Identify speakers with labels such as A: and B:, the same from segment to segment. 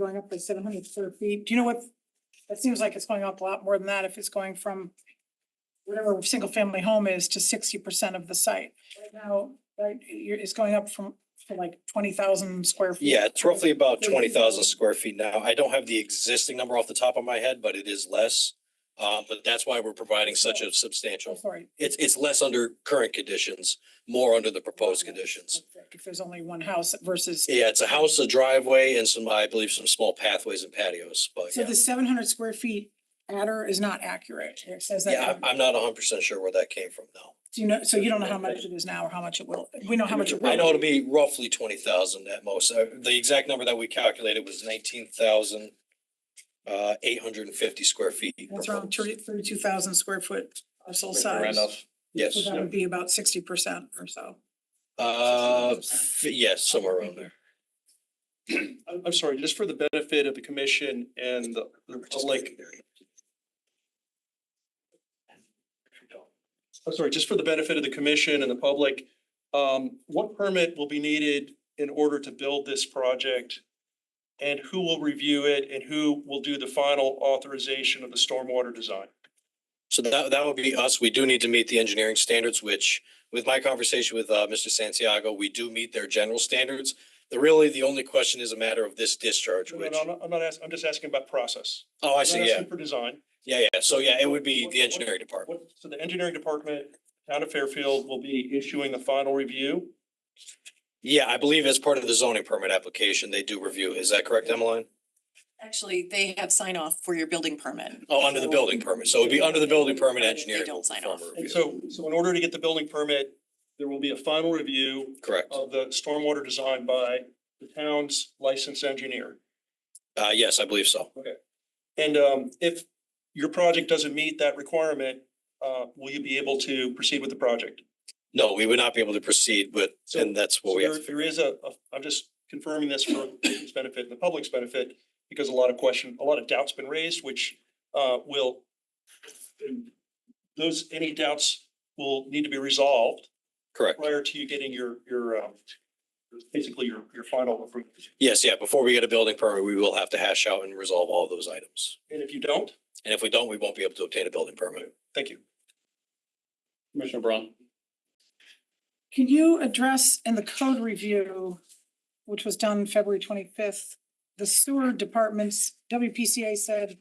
A: going up by seven hundred square feet. Do you know what? That seems like it's going up a lot more than that if it's going from whatever single family home is to sixty percent of the site. Right now, right, you're, it's going up from, to like twenty thousand square feet.
B: Yeah, it's roughly about twenty thousand square feet now. I don't have the existing number off the top of my head, but it is less. Uh, but that's why we're providing such a
A: Oh,
B: substantial,
A: sorry.
B: it's, it's less under current conditions, more under the proposed conditions.
A: If there's only one house versus,
B: Yeah, it's a house, a driveway and some, I believe, some small pathways and patios, but
A: so
B: yeah.
A: the seven hundred square feet adder is not accurate. It says that.
B: Yeah, I'm, I'm not hundred percent sure where that came from though.
A: Do you know, so you don't know how much it is now or how much it will, we know how much it will.
B: I know it'll be roughly twenty thousand at most. Uh, The exact number that we calculated was nineteen thousand uh, eight hundred and fifty square feet.
A: That's around
B: proposed.
A: thirty, thirty-two thousand square foot parcel
C: Commissioner
A: size.
C: Randolph?
B: Yes.
A: So that would be about sixty percent or so.
B: Uh,
A: 61%.
B: f- yes, somewhere around there.
C: I'm, I'm sorry, just for the benefit of the commission and the the public, I'm sorry, just for the benefit of the commission and the public, um, what permit will be needed in order to build this project? And who will review it and who will do the final authorization of the stormwater design?
B: So that, that would be us. We do need to meet the engineering standards, which with my conversation with, uh, Mr. Santiago, we do meet their general standards. The really, the only question is a matter of this discharge,
C: No, no,
B: which,
C: no, I'm not- I'm not asking, I'm just asking about process.
B: oh, I
C: I'm not
B: see, yeah,
C: asking For design.
B: yeah, yeah. So yeah, it would be the engineering department.
C: What, so the engineering department, town of Fairfield will be issuing the final review.
B: Yeah, I believe as part of the zoning permit application, they do review. Is that correct, Emmeline?
D: Actually, they have sign off for your building permit.
B: Oh, under the building permit. So it'd be under the building permit
D: They
B: engineering.
D: don't sign off.
B: department
C: And
B: review.
C: so, so in order to get the building permit, there will be a final review
B: Correct.
C: of the stormwater design by the town's licensed engineer.
B: Uh, yes, I believe so.
C: And um, if your project doesn't meet that requirement, uh, will you be able to proceed with the project?
B: No, we would not be able to proceed with,
C: So-
B: and that's what
C: So
B: we have.
C: there- There is a, a- I'm just confirming this for its benefit and the public's benefit, because a lot of question, a lot of doubts been raised, which uh, will those, any doubts will need to be resolved
B: Correct.
C: prior to you getting your, your, um, basically your, your final approval.
B: Yes, yeah, before we get a building permit, we will have to hash out and resolve all those items.
C: And if you don't,
B: And if we don't, we won't be able to obtain a building permit.
C: thank you.
E: Commissioner Braun.
A: Can you address in the code review, which was done February twenty-fifth, the sewer department's WPCA said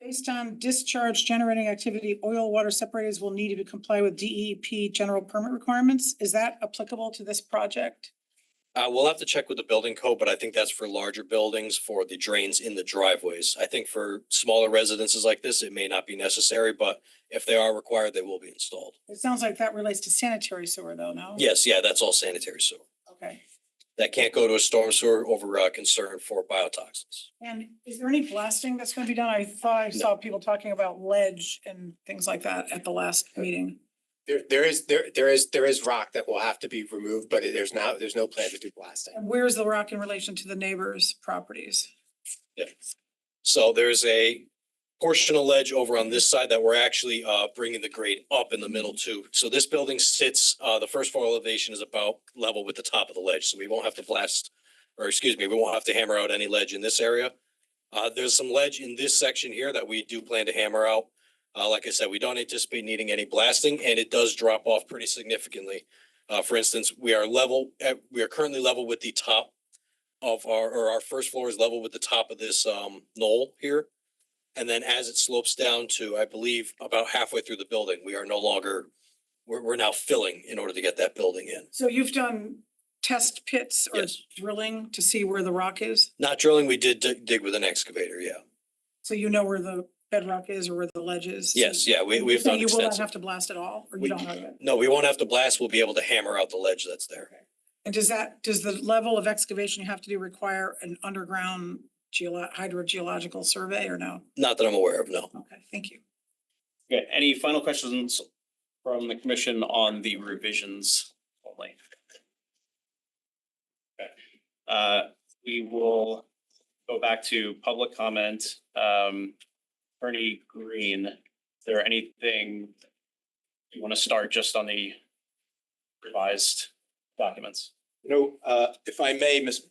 A: based on discharge generating activity, oil water separators will need to comply with DEP general permit requirements. Is that applicable to this project?
B: Uh, we'll have to check with the building code, but I think that's for larger buildings for the drains in the driveways. I think for smaller residences like this, it may not be necessary, but if they are required, they will be installed.
A: It sounds like that relates to sanitary sewer though, no?
B: Yes, yeah, that's all sanitary sewer.
A: Okay.
B: That can't go to a storm sewer over, uh, concern for biotoxins.
A: And is there any blasting that's gonna be done? I thought I
B: No.
A: saw people talking about ledge and things like that at the last meeting.
F: There, there is, there, there is, there is rock that will have to be removed, but there's now, there's no plan to do blasting.
A: And where's the rock in relation to the neighbors' properties?
B: So there's a portion of ledge over on this side that we're actually uh bringing the grade up in the middle too. So this building sits, uh, the first floor elevation is about level with the top of the ledge, so we won't have to blast, or excuse me, we won't have to hammer out any ledge in this area. Uh, there's some ledge in this section here that we do plan to hammer out. Uh, like I said, we don't anticipate needing any blasting and it does drop off pretty significantly. Uh, for instance, we are level, at- we are currently level with the top of our, or our first floor is level with the top of this um knoll here. And then as it slopes down to, I believe, about halfway through the building, we are no longer, we're we're now filling in order to get that building in.
A: So you've done test pits or
B: Yes.
A: drilling to see where the rock is?
B: Not drilling, we did dig dig with an excavator, yeah.
A: So you know where the bedrock is or where the ledge is? So-
B: Yes, yeah, we we've
A: So
B: done
A: you will not
B: extensive.
A: have to blast at all, or you
B: We-
A: don't have it?
B: No, we won't have to blast. We'll be able to hammer out the ledge that's there.
A: And does that, does the level of excavation you have to do require an underground geolo- hydrogeological survey or no?
B: Not that I'm aware of, no.
A: Okay, thank you.
E: Okay, any final questions from the commission on the revisions only? Okay, Uh, we will go back to public comment. Um, Attorney Green, is there anything you want to start just on the revised documents?
F: You know, uh, if I may, Ms.